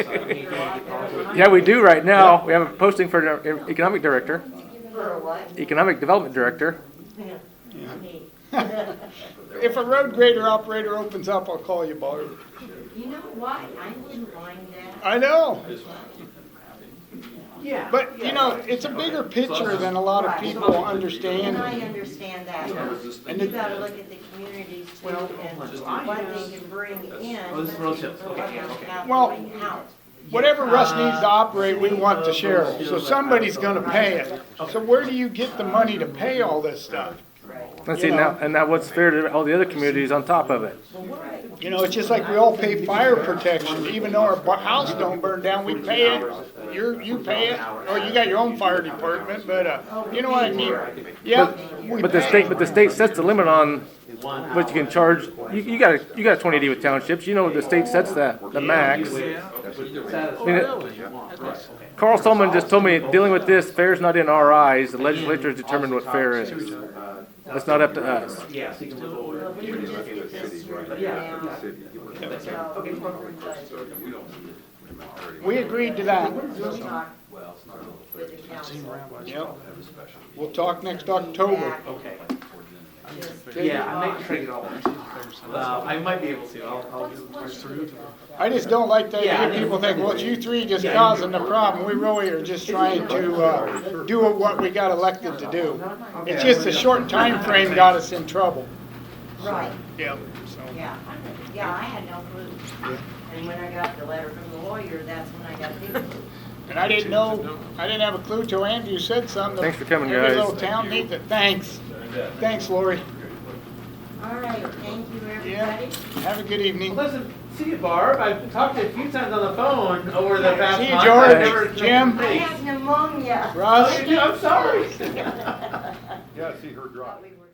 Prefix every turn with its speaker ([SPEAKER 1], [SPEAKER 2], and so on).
[SPEAKER 1] Yeah, we do right now. We have a posting for an economic director,
[SPEAKER 2] For a what?
[SPEAKER 1] economic development director.
[SPEAKER 3] If a road grader operator opens up, I'll call you, Ballard.
[SPEAKER 2] You know why? I wouldn't mind that.
[SPEAKER 3] I know,
[SPEAKER 2] Yeah.
[SPEAKER 3] but you know, it's a bigger picture than a lot of people
[SPEAKER 2] And I
[SPEAKER 3] understand.
[SPEAKER 2] understand that. And you gotta look at the communities too and what they can bring in.
[SPEAKER 4] Oh, this is real tips.
[SPEAKER 2] for what they
[SPEAKER 4] Okay, okay.
[SPEAKER 2] have
[SPEAKER 3] Well-
[SPEAKER 2] going out.
[SPEAKER 3] Whatever Russ needs to operate, we want to share, so somebody's gonna pay it. So where do you get the money to pay all this stuff?
[SPEAKER 1] Let's see now, and now what's fair to all the other communities on top of it?
[SPEAKER 3] You know, it's just like we all pay fire protection, even though our bu- house don't burn down, we pay it, you're, you pay it, or you got your own fire department, but, uh, you know what I mean? Yeah, we
[SPEAKER 1] But the
[SPEAKER 3] pay.
[SPEAKER 1] state, but the state sets the limit on what you can charge. You, you got, a- you got a twenty D with townships. You know, the state sets that, the max. I mean, it- Carl Solomon just told me, dealing with this, fair's not in our eyes. The legislature has determined what fair is. That's not up to us.
[SPEAKER 4] Yeah, so you can look over.
[SPEAKER 2] We can just get this straightened out. So we're good.
[SPEAKER 3] We agreed to that.
[SPEAKER 2] We'll talk with the council.
[SPEAKER 3] Yep. We'll talk next October.
[SPEAKER 2] Back,
[SPEAKER 4] Okay,
[SPEAKER 2] just-
[SPEAKER 4] yeah, I might trade it all. Uh, I might be able to, I'll, I'll do
[SPEAKER 3] I just don't like the
[SPEAKER 4] Yeah, I
[SPEAKER 3] idea
[SPEAKER 4] think-
[SPEAKER 3] people think, well, it's you three just
[SPEAKER 4] Yeah.
[SPEAKER 3] causing the problem. We really are just trying to, uh, do what we got elected to do. It's just a short time frame got us in trouble.
[SPEAKER 2] Right,
[SPEAKER 3] Yep. so.
[SPEAKER 2] yeah. Yeah, I had no clue. And when I got the letter from the lawyer, that's when I got the clue.
[SPEAKER 3] And I didn't know, I didn't have a clue till Andrew said something.
[SPEAKER 1] Thanks for coming,
[SPEAKER 3] Every
[SPEAKER 1] guys.
[SPEAKER 3] little town needs it. Thanks. Thanks, Lori.
[SPEAKER 2] All right, thank you,
[SPEAKER 3] Yeah.
[SPEAKER 2] everybody.
[SPEAKER 3] Have a good evening.
[SPEAKER 4] Well, Listen, see you, Barb. I've talked to you a few times on the phone over the past
[SPEAKER 3] See you,
[SPEAKER 4] month.
[SPEAKER 3] George.
[SPEAKER 4] I've never-
[SPEAKER 3] Jim.
[SPEAKER 2] I
[SPEAKER 4] Thanks.
[SPEAKER 2] have pneumonia.
[SPEAKER 3] Russ?
[SPEAKER 4] I'm sorry.
[SPEAKER 5] Yeah, I see her drop.
[SPEAKER 2] But we were-